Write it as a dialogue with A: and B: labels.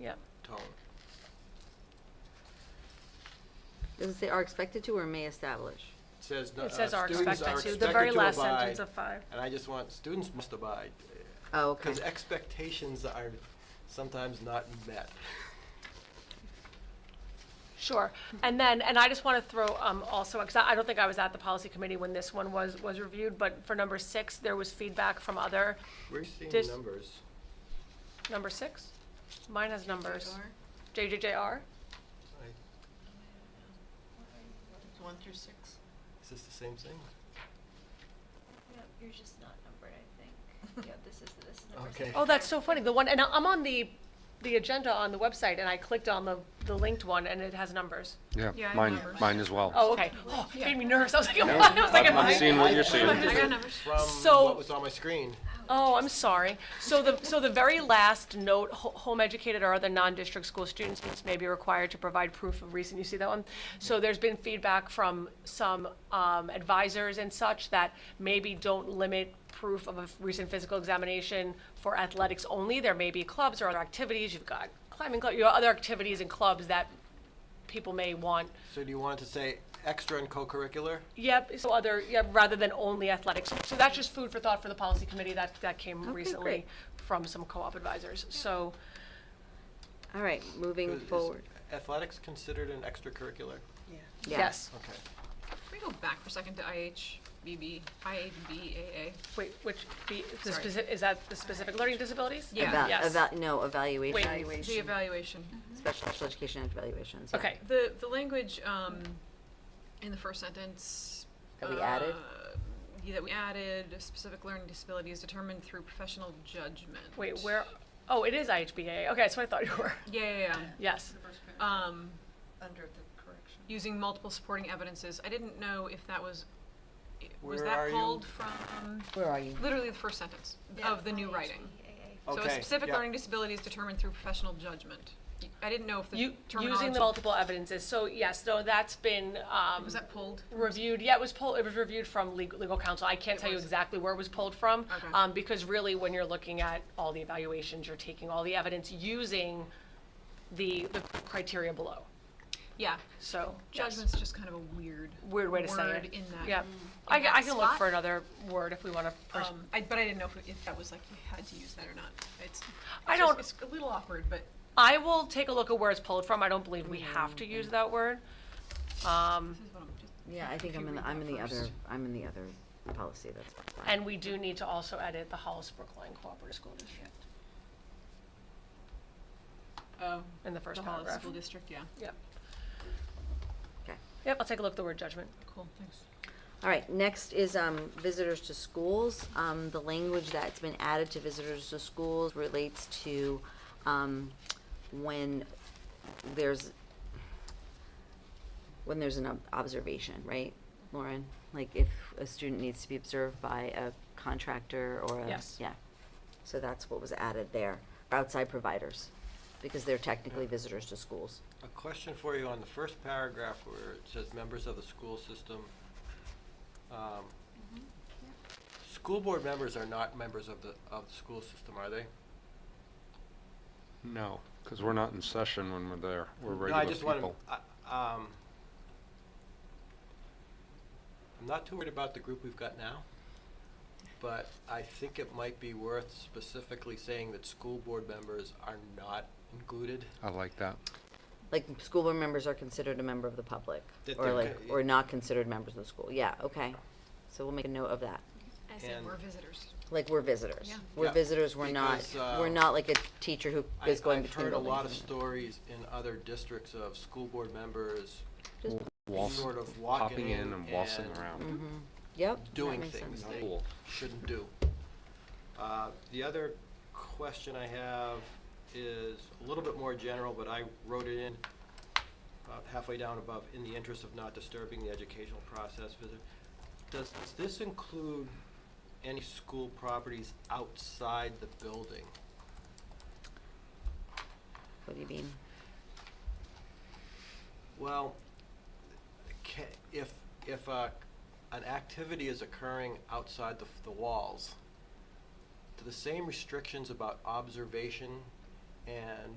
A: Yep.
B: tone.
C: Does it say are expected to or may establish?
B: It says, no- uh,
A: It says
B: students
A: are expected to, the
B: expected
A: very
B: to
A: last
B: abide,
A: sentence of five.
B: And I just want, students must abide.
C: Oh, okay.
B: Because expectations are sometimes not met.
A: Sure. And then, and I just want to throw um, also, because I I don't think I was at the policy committee when this one was, was reviewed, but for number six, there was feedback from other,
B: We're seeing
A: Just-
B: numbers.
A: number six? Mine has numbers. JJJR?
B: I-
D: One through six.
B: Is this the same thing?
E: No, you're just not numbered, I think. Yeah, this is, this is number
B: Okay.
E: six.
A: Oh, that's so funny. The one, and I- I'm on the, the agenda on the website, and I clicked on the, the linked one, and it has numbers.
F: Yeah,
D: Yeah, I
F: mine,
D: remember.
F: mine as well.
A: Oh, okay. Oh, it made me nervous. I was like, I was like.
F: I'm- I'm
A: I-
F: seeing what you're seeing.
A: I got
D: numbers.
B: From
A: So-
B: what was on my screen.
A: Oh, I'm sorry. So the, so the very last note, ho- home educated or other non-district school students may be required to provide proof of recent, you see that one? So there's been feedback from some um, advisors and such that maybe don't limit proof of a f- recent physical examination for athletics only. There may be clubs or other activities, you've got climbing club, you know, other activities and clubs that people may want.
B: So do you want it to say extra and co-curricular?
A: Yep, so other, yeah, rather than only athletics. So that's just food for thought for the policy committee. That, that came
C: Okay,
A: recently
C: great.
A: from some co-op advisors. So,
C: All right, moving
B: Is- is
C: forward.
B: Athletics considered an extracurricular?
D: Yeah.
C: Yeah.
A: yes.
B: Okay.
D: Can we go back for a second to IHBB, IHBAA?
A: Wait, which, the, the
D: Sorry.
A: speci is that the specific learning disabilities?
D: Yeah.
C: Eva-
A: Yes.
C: eva- no, evaluation.
A: Wait.
D: The evaluation.
A: Mm-hmm.
C: Special, special education and evaluations. yeah.
A: Okay,
D: The, the language, um, in the first sentence.
C: That we added?
D: uh, yeah, That we added, "A specific learning disability is determined through professional judgment.
A: wait, where, oh, it is IHBA. Okay, that's what I thought you were.
D: Yeah, yeah,
A: Yes.
D: yeah. Um,
E: Under the correction.
D: using multiple supporting evidences. I didn't know if that was, i- was
B: Where are
D: that
B: you?
D: pulled from,
C: Where are you?
D: literally the first sentence of the new writing. So a
B: Okay,
D: specific
B: yeah.
D: learning disability is determined through professional judgment. Y- I didn't know if the
A: You,
D: terminology.
A: using the multiple evidences. So yes, no, that's been, um,
D: Was that pulled?
A: reviewed, yeah, it was pulled, it was reviewed from legal, legal counsel. I can't tell you
D: was?
A: exactly where it was pulled from.
D: Okay.
A: Um, because really, when you're looking at all the evaluations, you're taking all the evidence using the, the criteria below.
D: Yeah,
A: So, yes,
D: judgment's just kind of a weird.
A: weird way to say
D: word
A: it.
D: in that. Mm.
A: Yeah.
D: in
A: I, ca-
D: that
A: I can look
D: spot.
A: for another word if we wanna, pers-
D: Um, I, but I didn't know if, if that was like, you had to use that or not. It's,
A: I
D: it's just-
A: don't-
D: it's a little awkward, but
A: I will take a look at where it's pulled from. I don't believe we have
D: Mm-hmm.
A: to use that word. Um,
D: this is what I'm just.
C: Yeah, I think
D: If
C: I'm
D: you
C: in, the
D: read
C: I'm
D: that
C: in the other,
D: first.
C: I'm in the other policy, that's fine.
A: and we do need to also edit the Hollis Brookline Cooperative School District
D: Oh,
A: in the
D: the
A: first
D: Hollis
A: paragraph.
D: School District, yeah.
A: Yep,
C: Okay.
A: yep, I'll take a look at the word judgment.
D: Cool, thanks.
C: All right, next is um, visitors to schools. Um, The language that's been added to visitors to schools relates to um, when there's, when there's an ob- observation, right, Lauren? Like if a student needs to be observed by a contractor or a.
A: Yes.
C: Yeah. So that's what was added there, outside providers, because they're technically visitors to schools.
B: A question for you on the first paragraph where it says members of the school system. Um, School board members are not members of the, of the school system, are they?
F: No, because we're not in session when we're there. We're
B: No,
F: regular
B: I just want
F: people.
B: to, um, I'm not too worried about the group we've got now, but I think it might be worth specifically saying that school board members are not included.
F: I like that.
C: Like, school board members are considered a member of the public,
B: That
C: or
B: they're
C: like,
B: co-
C: or not considered members of the school, yeah, okay. So we'll make a note of that,
D: I said
B: And-
D: we're visitors.
C: like, we're visitors.
D: Yeah.
C: We're
B: Yeah,
C: visitors, we're not,
B: because,
C: we're
B: uh,
C: not like a teacher who
B: I-
C: is going
B: I've
C: between
B: heard a
C: buildings.
B: lot of stories in other districts of school board members
F: Waltz,
B: sort of walking
F: popping
B: in
F: in and waltzing
B: and-
F: around.
C: Mhm. Yep. that
B: doing
C: makes
B: things
C: sense.
B: they
F: Cool.
B: shouldn't do. Uh, The other question I have is a little bit more general, but I wrote it in about halfway down above, in the interest of not disturbing the educational process visit. Does this include any school properties outside the building?
C: What do you mean?
B: Well, ca- if, if uh, an activity is occurring outside the, the walls, do the same restrictions about observation and